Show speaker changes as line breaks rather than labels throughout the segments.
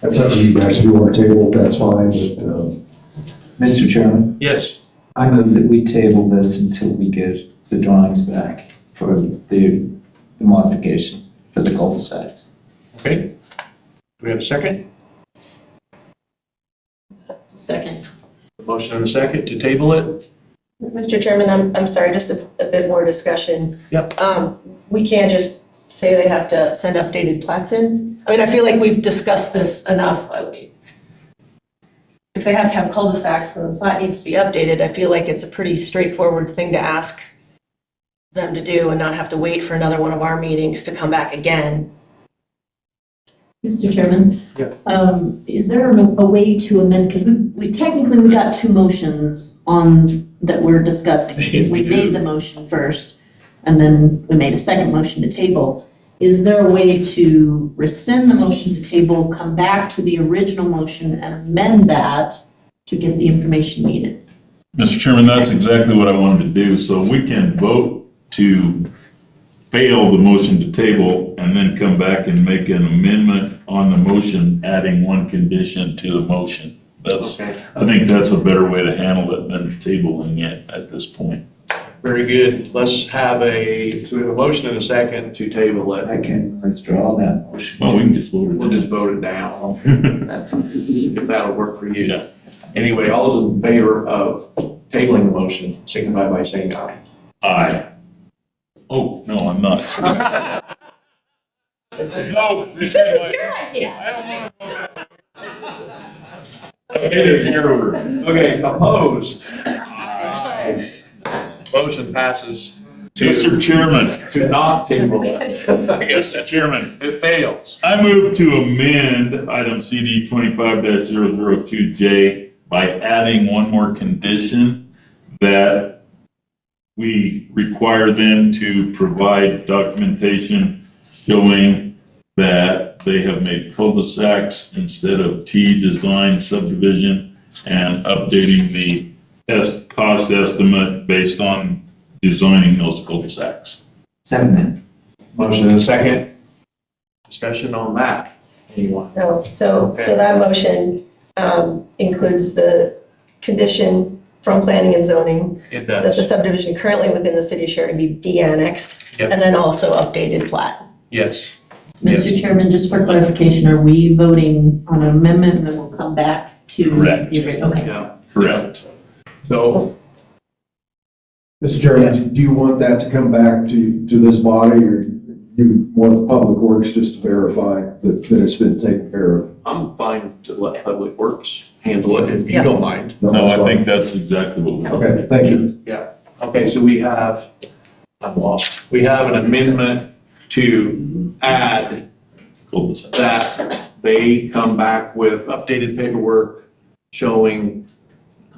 That's up to you guys, if you want to table, it, that's fine, but, um,
Mr. Chairman,
Yes.
I move that we table this until we get the drawings back for the, the modification for the cul-de-sacs.
Okay. Do we have a second?
Second.
Motion and a second to table it?
Mr. Chairman, I'm, I'm sorry, just a, a bit more discussion.
Yep.
Um, we can't just say they have to send updated plats in. I mean, I feel like we've discussed this enough. I mean, If they have to have cul-de-sacs, then the plat needs to be updated. I feel like it's a pretty straightforward thing to ask them to do and not have to wait for another one of our meetings to come back again.
Mr. Chairman?
Yeah.
Um, is there a a way to amend, because we, we technically, we got two motions on, that we're discussing. Because we made the motion first, and then we made a second motion to table. Is there a way to rescind the motion to table, come back to the original motion and amend that to get the information needed?
Mr. Chairman, that's exactly what I wanted to do, so we can vote to fail the motion to table and then come back and make an amendment on the motion, adding one condition to the motion. That's,
Okay.
I think that's a better way to handle it than tabling it at this point.
Very good. Let's have a, so we have a motion and a second to table it.
I can withdraw that motion.
Well, we can just vote
We'll
it
just vote it down,
in.
That's-
if that'll work for you.
Yeah.
Anyway, all those in favor of tabling the motion, signify by saying aye.
Aye. Oh, no, I'm not. No, this is my-
idea.
I don't want to vote. Okay, here.
Okay, opposed? Aye. Motion passes
Mr. Chairman.
to not table it. I guess
Mr.
that's,
Chairman,
it fails.
I move to amend item CD twenty-five 2 J by adding one more condition that we require them to provide documentation showing that they have made cul-de-sacs instead of T-design subdivision and updating the es- cost estimate based on designing those cul-de-sacs.
Second.
Motion and a second. Discussion on that, anyone?
No, so, so that motion um, includes the condition from planning and zoning
It
that the
does.
subdivision currently within the city of Sheridan be de-annexed
Yep.
and then also updated plat.
Yes.
Mr. Chairman, just for clarification, are we voting on an amendment and then we'll come back to?
Correct.
the original? Okay.
Yeah,
Correct.
so,
Mr. Chairman, do you want that to come back to, to this body, or do you want Public Works just to verify that, that it's been taken care of?
I'm fine to let Public Works handle it if you don't mind.
No,
that's
I
fine.
think that's exactly what we.
Okay, thank you.
Okay, so we have, I'm lost, we have an amendment to add
Cul-de-sac.
that they come back with updated paperwork showing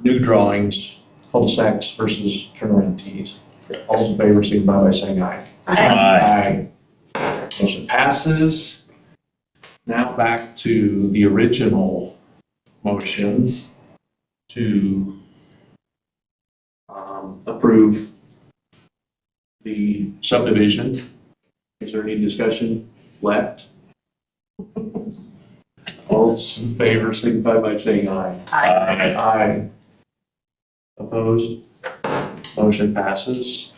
new drawings, cul-de-sacs versus turnaround tees. All those in favor, signify by saying aye.
Aye.
Aye. Motion passes. Now back to the original motions to um, approve the subdivision. Is there any discussion left? All those in favor signify by saying aye.
Aye.
Aye. Opposed? Motion passes.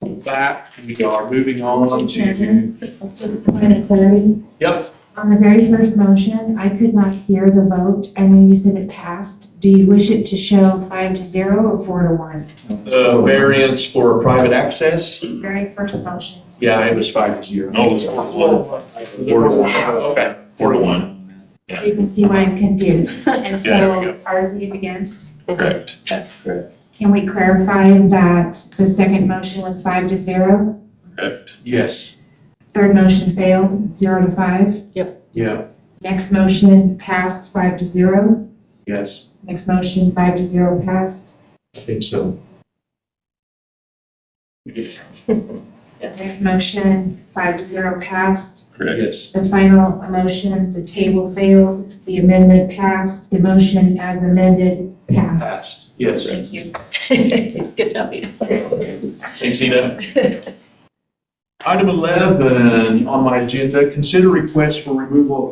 With That, we are moving on
Mr.
to.
Chairman, Just a point of clarity,
Yep,
on the very first motion, I could not hear the vote. I know you said it passed. Do you wish it to show five to zero or four to one?
the variance for private access,
Very first motion.
yeah, it was five to zero.
No, it's four to one.
Oh, Four to one, okay.
Four to one,
So you can see why I'm confused. And
Yeah, there we
so RZ against,
correct.
can we clarify that the second motion was five to zero?
Correct.
Yes,
Third motion failed, zero to five.
yeah,
Next motion passed, five to zero.
yes,
Next motion, five to zero passed.
I think so.
Next motion, five to zero passed.
Correct.
Yes,
The final motion, the table failed, the amendment passed, the motion as amended passed.
passed, yes.
Thank you. Good job, Ian.
Thanks, Ina. Item 11 on my agenda, consider request for removal of